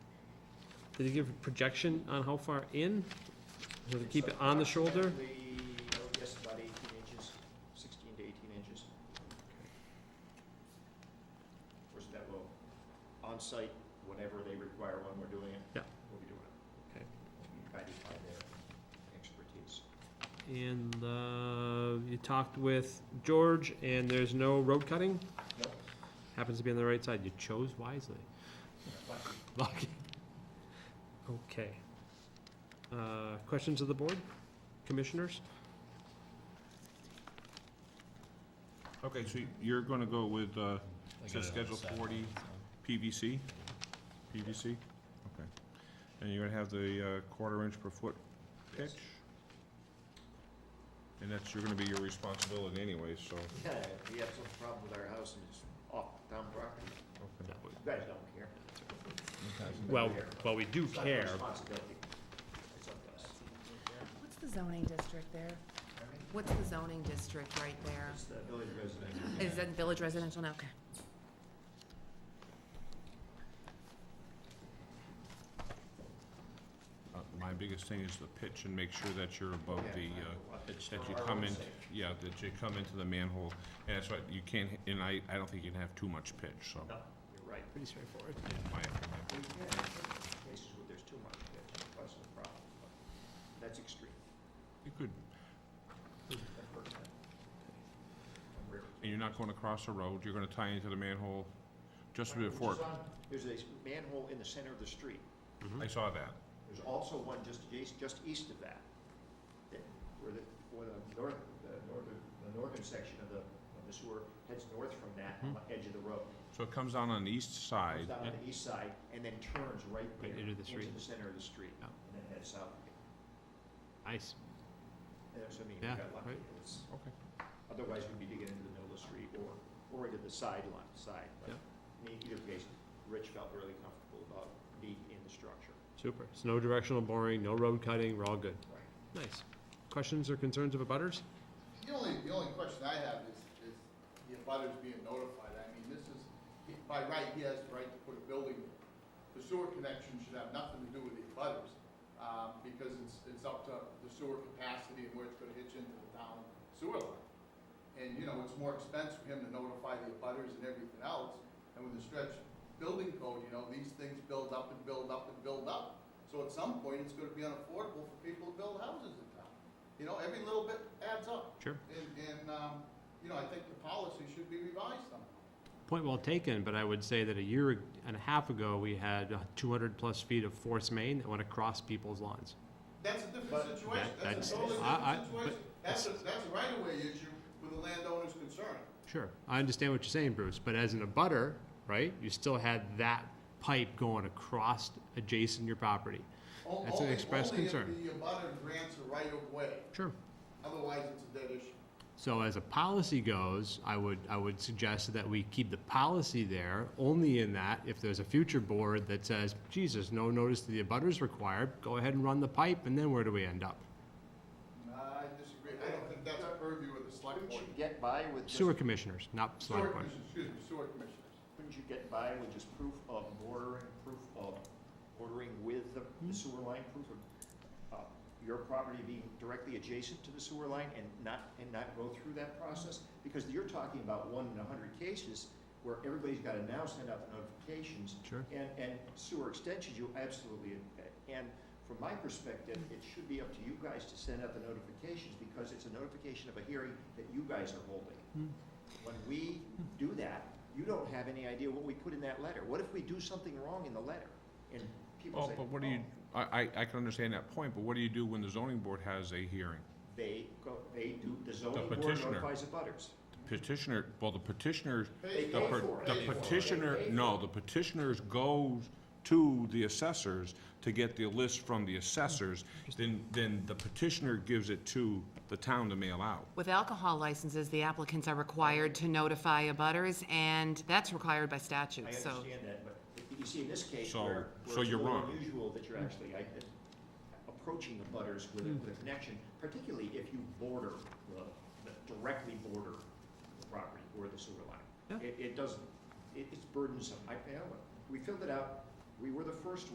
Did they give a projection on how far in? So they keep it on the shoulder? Approximately, oh, Yes, about 18 inches, 16 to 18 inches. Of course, that will, on-site, whenever they require one, we're doing it. Yeah. We'll be doing it. Okay. Guided by their expertise. And uh, you talked with George, and there's no road cutting? No, Happens to be on the right side. You chose wisely. but Lucky. Okay. Uh, Questions of the board? Commissioners? Okay, so you're gonna go with, uh, says schedule forty PVC, PVC, okay. And you're gonna have the, uh, quarter inch per foot pitch? And that's, you're gonna be your responsibility anyway, so, Yeah, we have some problem with our house and it's off town property. okay. You guys don't care. Well, well, we do It's not your care. responsibility. It's up to us. What's the zoning district there? What's the zoning district right there? It's the village resident. Is that village residential now? Okay. Uh, My biggest thing is the pitch and make sure that you're above Yeah, the, I uh, don't want- that you for our come own in, sake. yeah, that you come into the manhole. And that's why you can't, and I, I don't think you can have too much pitch, so, No, you're right. Pretty straightforward. in my opinion. We can have Cases where there's too much pitch, it causes a problem, but that's extreme. You could, That hurts. Rare. and you're not going across the road, you're gonna tie into the manhole just Which before, is on- There's a s- manhole in the center of the street. Mm-hmm. Mm-hmm. I saw that. There's also one just adjacent, just east of that, that- where the, where the north, the northern, the northern section of the, of the sewer heads north from that Hmm. on the edge of the road. So it comes down on the east Comes side, down on the east side and then turns right there. Right into the street. Into the center of the street, Yeah. and then heads south. Nice. And so, I mean, we Yeah, got lucky. right. It's, okay. Otherwise, we'd be digging into the middle of the street or, or into the sideline, side. But In either case, Rich felt really comfortable about being in the structure. Super. So no directional boring, no road cutting, we're all good. Right. Nice. Questions or concerns of abutters? The only, the only question I have is, is the abutters being notified, I mean, this is, he- by right, he has the right to put a building, the sewer connection should have nothing to do with the abutters, um, because it's, it's up to the sewer capacity and where it's gonna hitch into the town sewer line. And, you know, it's more expense for him to notify the abutters and everything else, and with the stretch building code, you know, these things build up and build up and build up. So at some point, it's gonna be unaffordable for people to build houses in town, you know, every little bit adds up. Sure. And, and, um, you know, I think the policy should be revised somehow. Point well taken, but I would say that a year and a half ago, we had uh, two hundred plus feet of force main that went across people's lawns. That's a different But- situation, That- that's- that's a totally I- I- different situation. but- That's a, that's a right-of-way issue with the landowner's concern. Sure, I understand what you're saying, Bruce, but as an abutter, right, you still had that pipe going across adjacent your property. O- That's an only- expressed concern. Only if the abutter grants a right-of-way, Sure. otherwise it's a dead issue. So as a policy goes, I would, I would suggest that we keep the policy there, only in that if there's a future board that says, Jesus, no notice to the abutters required, go ahead and run the pipe, and then where do we end up? I disagree, I don't think that's a purview of the select Couldn't board. you get by with just, Sewer commissioners, not Sewer select board. commissioners, excuse me, sewer commissioners. couldn't you get by with just proof of bordering, proof of bordering with the the sewer line, proof of uh, your property being directly adjacent to the sewer line and not, and not go through that process? Because you're talking about one in a hundred cases where everybody's gotta now send out the notifications Sure. And, and sewer extensions, you absolutely, and from my perspective, it should be up to you guys to send out the notifications, because it's a notification of a hearing that you guys are Hmm. holding. When we do that, you don't have any idea what we put in that letter. What if we do something wrong in the letter? And people Oh, say, but what do you, "Oh, I, I, I can understand that point, but what do you do when the zoning board has a hearing? They go, they do, the zoning board petitioner. notifies the butters. Petitioner, well, the petitioner, They the pay per- for it. the Pay for it. petitioner, They pay no, the petitioners goes to the assessors to get the list from the assessors, then, then the petitioner gives it to the town to mail out. With alcohol licenses, the applicants are required to notify abutters, and that's required by I statute, so. understand that, but you see in this case So- where, so where it's a you're little wrong. unusual that you're actually I- approaching the butters with Hmm. a, with a connection, particularly if you border the, the- directly border the property or the sewer line. Yeah. It, it doesn't, it, it's burdensome. I, I know, it. we filled it out, we were the first